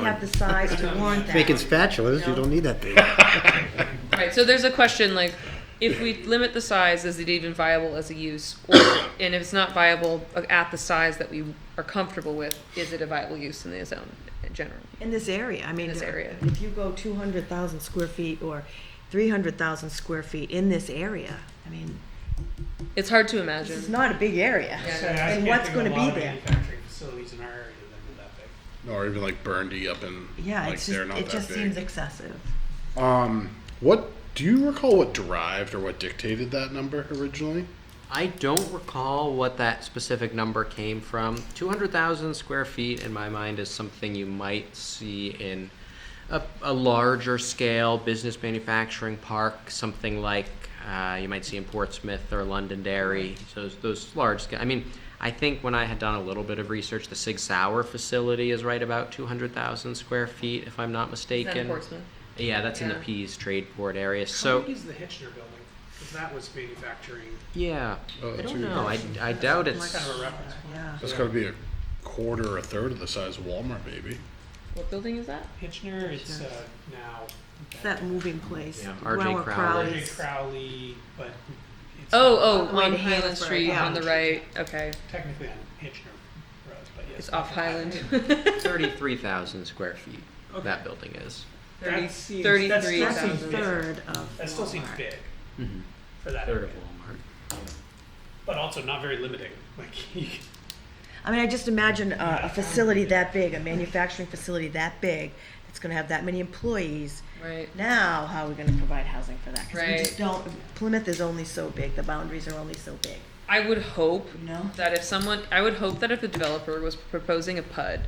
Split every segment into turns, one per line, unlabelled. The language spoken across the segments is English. We have the size to warrant that.
Making spatulas, you don't need that big.
Right, so there's a question like, if we limit the size, is it even viable as a use? Or, and if it's not viable at the size that we are comfortable with, is it a viable use in the zone in general?
In this area, I mean. uh,
this area.
If you go two hundred thousand square feet or three hundred thousand square feet in this area, I mean,
It's hard to
this is
imagine.
not a big area.
Yeah.
So I can't
And what's
think of
gonna
a
be
lot of
there?
Manufacturing facilities in our area that are that big.
Or even like Burndy up in
Yeah,
like
it's just,
they're not
it
that
just
big.
seems excessive.
um, what do you recall? What derived or what dictated that number originally?
I don't recall what that specific number came from. 200,000 square feet, in my mind, is something you might see in a, a larger scale business manufacturing park, something like uh, you might see in Portsmouth or Londonderry. So those, those large scale. I mean, I think when I had done a little bit of research, the Sig Sauer facility is right about 200,000 square feet, if I'm
Is
not
that
mistaken.
in Portsmouth?
Yeah, that's in the
Yeah.
Pease Tradeport area.
How
So,
big is the Hitchner building? Because that was manufacturing.
yeah.
Oh,
I
that's
don't
a-
know. I, I
Oh
doubt
It's
it's.
kind of a reference. point.
Yeah.
That's got to be a quarter or a third of the size of Walmart, maybe.
What building is that?
Hitchner, it's uh, now
It's that moving place.
Yeah, RJ
Where
Crowley.
Ray
Crowley's-
Crowley, but it's
Oh, oh,
On
on
Highland
Highland
Road,
Street
yeah.
on the right. Okay,
technically on Hitchner Road, but yes.
it's off Highland.
Thirty-three thousand square feet, that building is.
That seems- that still
That's a
seems
33,000.
big.
third of.
That still seems
Walmart.
big
Mm-hmm.
for that
Third
area,
of Walmart.
but also not very limiting. Like you can-
I mean, I just imagine uh, a, a facility that big, a manufacturing facility that big, that's gonna have that many employees.
Right.
Now, how are we gonna provide housing for that? 'Cause we just
Right.
don't, Plymouth is only so big, the boundaries are only so big.
I would hope
You know?
that if someone, I would hope that if a developer was proposing a PUD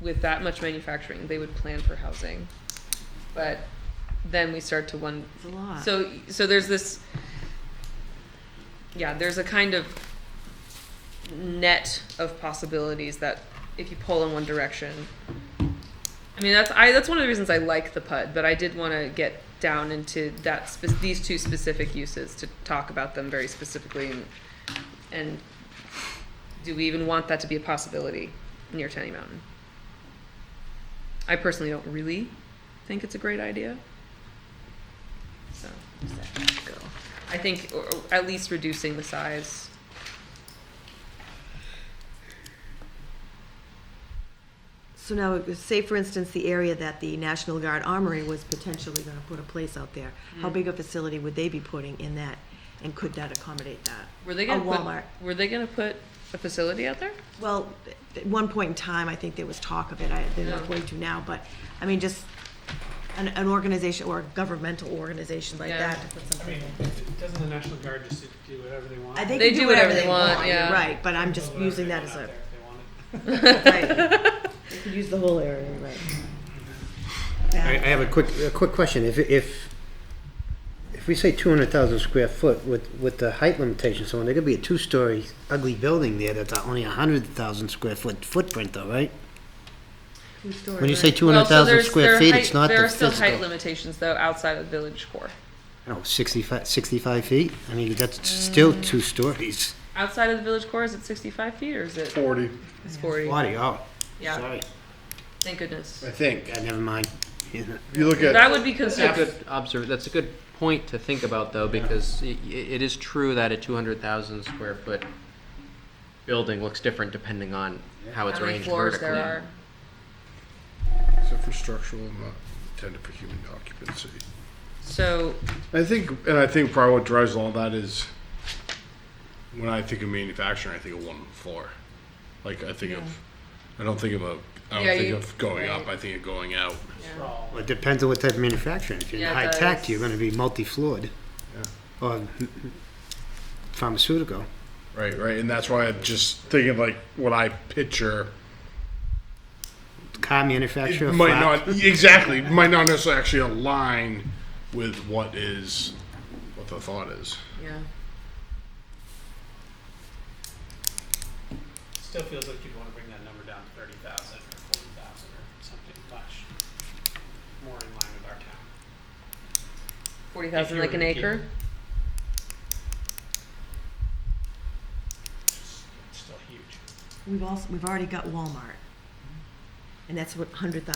with that much manufacturing, they would plan for housing. But then we start to one.
It's a lot.
So so there's this. Yeah, there's a kind of net of possibilities that if you pull in one direction. I mean that's I that's one of the reasons I like the PUD, but I did want to get down into that spe- these two specific uses to talk about them very specifically and and do we even want that to be a possibility near Tenny Mountain? I personally don't really think it's a great idea. So I think or, or at least reducing the size.
So now, say for instance, the area that the National Guard Armory was potentially gonna put a place out there.
Hmm.
How big a facility would they be putting in that, and could that accommodate that?
Were they
A
gonna put,
Walmart.
Were they gonna put a facility out there?
Well, at one point in time, I think there was talk of it, I, they're not
Yeah.
going to now, but, I mean, just an, an organization or a governmental organization like
Yeah.
that to put
I
something.
mean, doesn't the National Guard just do whatever they want?
I think
They
do
do
whatever
whatever
they
they want,
want, you're
yeah.
right, but I'm
Build
just
whatever
using
they
that
want
as
out
a,
there if they want it.
right. You could use the whole area, you're right.
I, I have a quick, a quick question. If, if, if we say two hundred thousand square foot with, with the height limitation, so there's gonna be a two-story ugly building there that's only a hundred thousand square foot footprint though, right?
Two-story,
When you say
right.
two hundred thousand
there's- there
square
are
feet,
height-
it's not
There
the
are still height
physical.
limitations though outside of village core.
No, 65 65 feet? I mean,
Mm.
that's still two stories.
Outside of the village core, is it sixty-five feet or is it?
Forty,
It's forty.
Forty, oh,
Yeah,
sorry.
thank goodness.
I think.
Yeah, never mind.
If you look at
That would be
That's a
conservative.
good observ, that's a good point to think about though, because i- i- it is true that a two hundred thousand square foot building looks different depending on how it's
How many
arranged
floors there
vertically.
are?
except for structural, not intended for human occupancy.
So
I think, and I think probably what drives all that is when I think of manufacturing, I think of one floor. Like I think of, I don't think of a, I don't
Yeah,
think
you-
of going up.
right.
I think of going out.
Raw.
Well, it depends on what type of manufacturing. If you're
Yeah, it
high tech,
does.
you're gonna be multi-floored.
Yeah.
Or pharmaceutical.
Right, right, and that's why I just think of like what I picture.
Car
It
manufacturer.
might
flat-
not exactly might not necessarily actually align with what is what the thought is.
yeah,
Still feels like you'd want to bring that number down to thirty thousand or forty thousand or something much more in line with our town.
forty thousand
you
like
were
an
to keep-
acre.
It's it's still huge.
We've also, we've already got Walmart. And that's what, hundred thousand